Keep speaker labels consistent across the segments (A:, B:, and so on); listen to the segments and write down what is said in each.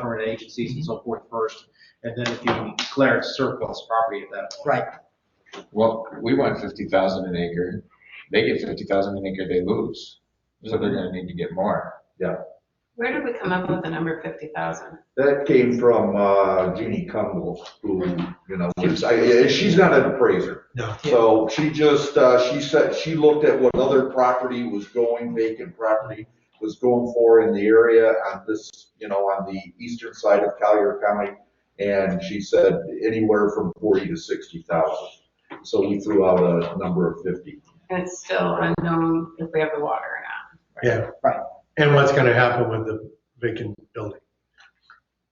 A: government agencies and so forth first, and then if you declare it surplus property at that point.
B: Right,
C: Well, we want fifty thousand an acre, they get fifty thousand an acre, they lose, so they're gonna need to get more.
D: Where did we come up with the number 50,000?
E: That came from uh, Jeannie Cumble, who, you know, is- I- yeah, she's not an appraiser.
A: No.
E: So she just, uh, she said, she looked at what other property was going, vacant property was going for in the area on this, you know, on the eastern side of Collier County. And she said anywhere from 40 to 60,000. So we threw out a number of 50.
D: And it's still unknown if we have the water or not.
F: Yeah.
B: Right.
F: And what's gonna happen with the vacant building?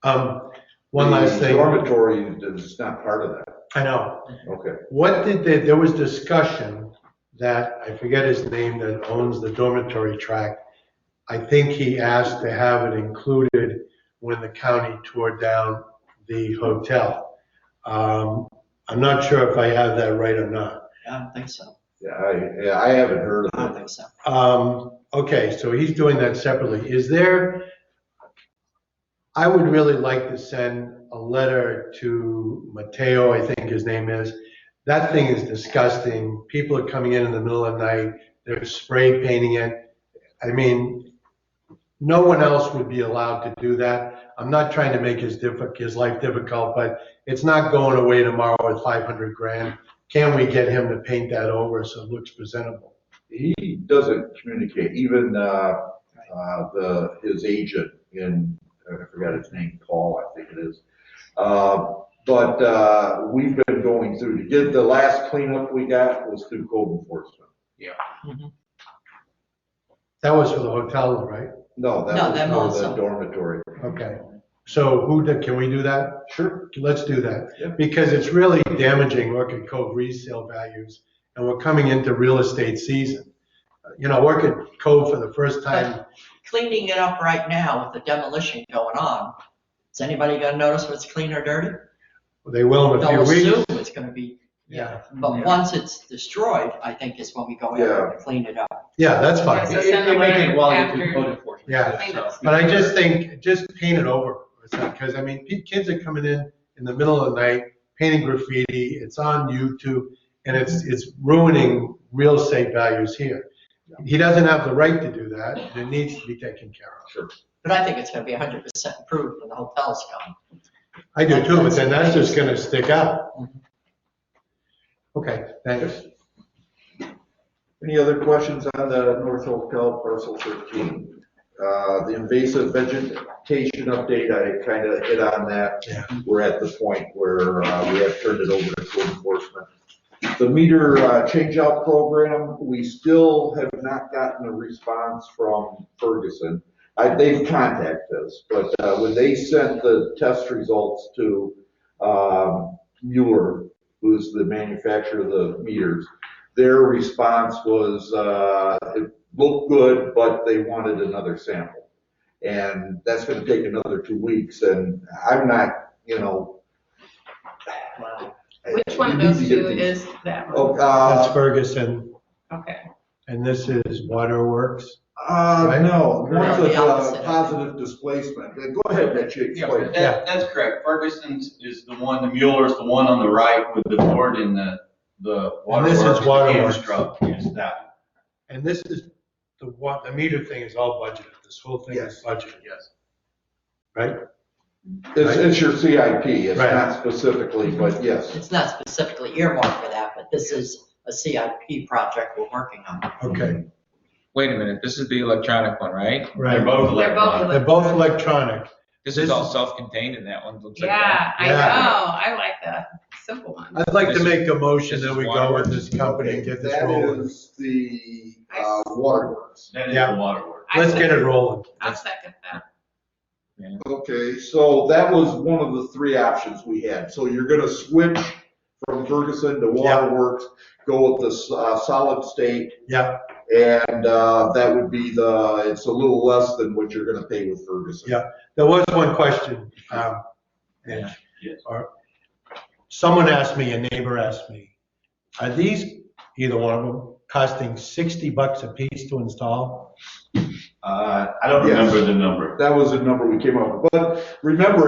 F: Um, one last
E: The
F: thing,
E: Dormitory is not part of that.
F: I know,
E: Okay.
F: what did they, there was discussion that, I forget his name, that owns the dormitory tract. I think he asked to have it included when the county tore down the hotel. Um, I'm not sure if I have that right or not.
B: I don't think so,
E: Yeah, I, yeah, I haven't heard
B: I
E: of
B: don't
E: it.
B: think so.
F: Um, okay, so he's doing that separately. Is there, I would really like to send a letter to Mateo, I think his name is. That thing is disgusting. People are coming in in the middle of the night, they're spray painting it. I mean, no one else would be allowed to do that. I'm not trying to make his diffi, his life difficult, but it's not going away tomorrow at 500 grand. Can we get him to paint that over so it looks presentable?
E: He doesn't communicate, even, uh, uh, the, his agent in, I forgot his name, Paul, I think it is. Uh, but, uh, we've been going through, to get, the last cleanup we got was through code enforcement.
F: That was for the hotel, though, right?
E: No,
B: No,
E: that
B: them
E: was for
B: also.
E: the dormitory.
F: Okay. So who, did- can we do that?
E: Mm-hmm. Sure.
F: Let's do that.
E: Yeah.
F: Because it's really damaging Orchid Cove resale values, and we're coming into real estate season. You know, Orchid Cove for the first time,
B: Cleaning it up right now with the demolition going on, is anybody gonna notice what's clean or dirty?
F: they will in a
B: They'll
F: few
B: assume
F: weeks.
B: it's gonna be,
F: Yeah,
B: but once it's destroyed, I think is when we go in
E: Yeah.
B: and clean it up.
F: yeah, that's fine.
D: Yeah, so send the
A: You make it
D: letter
A: while you're through
D: after-
A: code enforcement.
F: Yeah.
A: So-
F: But I just think, just paint it over, because I mean, pe- kids are coming in in the middle of the night, painting graffiti, it's on YouTube, and it's, it's ruining real estate values here. He doesn't have the right to do that, and it needs to be taken care of.
B: But I think it's gonna be hundred percent improved when the hotel's gone.
F: I do too, but then that's just gonna stick out. Okay, thanks.
E: Any other questions on the North Hotel parcel thirteen? Uh, the invasive vegetation update, I kind of hit on that.
F: Yeah.
E: We're at the point where, uh, we have turned it over to code enforcement. The meter, uh, changeout program, we still have not gotten a response from Ferguson. I, they've contacted us, but, uh, when they sent the test results to, um, Mueller, who's the manufacturer of the meters, their response was, uh, it looked good, but they wanted another sample. And that's gonna take another two weeks, and I'm not, you know.
B: Wow.
D: Which one of
E: You need
D: those
E: to get
D: two
E: these-
D: is that one?
E: Oh, uh,
F: That's Ferguson,
D: Okay.
F: and this is Waterworks.
E: uh,
F: Right?
E: no, one's
B: The
E: a
B: opposite.
E: uh, positive displacement. Go ahead, Mitch,
G: Yeah,
E: explain.
G: that, that's correct. Ferguson's is the one, the Mueller's the one on the right with the board and the, the
F: And this
G: waterworks.
F: is waterworks.
G: Amstrad is that.
F: And this is, the what, the meter thing is all budgeted, this whole thing is budgeted.
G: Yes.
F: Right?
E: It's, it's your CIP, it's
F: Right.
E: not specifically, but yes.
B: It's not specifically earmarked for that, but this is a CIP project we're working on.
F: Okay,
C: Wait a minute, this is the electronic one, right?
G: They're
F: right.
G: both
D: They're both
G: electronic.
F: They're both electronic.
C: This is all self-contained in that one, looks like. that.
D: Yeah, I
F: Yeah.
D: know. I like the simple one.
F: I'd like to make a motion
C: This
F: that
C: is
F: we go with this company and get this
E: That
F: rolling.
E: is the, uh, waterworks.
G: That is
F: Yeah.
G: the waterworks.
D: I
F: Let's get it
D: second-
F: rolling.
D: I'll second that.
E: Okay, so that was one of the three options we had. So you're gonna switch from Ferguson to Waterworks, go with the uh, solid state,
F: Yeah,
E: and uh, that would be the, it's a little less than what you're gonna pay with Ferguson.
F: Yeah. there was one question, um, Mitch.
G: Yes.
F: Or- Someone asked me, a neighbor asked me, are these, either one of them, costing 60 bucks a piece to install?
G: Uh, I don't remember the number.
E: That was the number we came up with. But remember,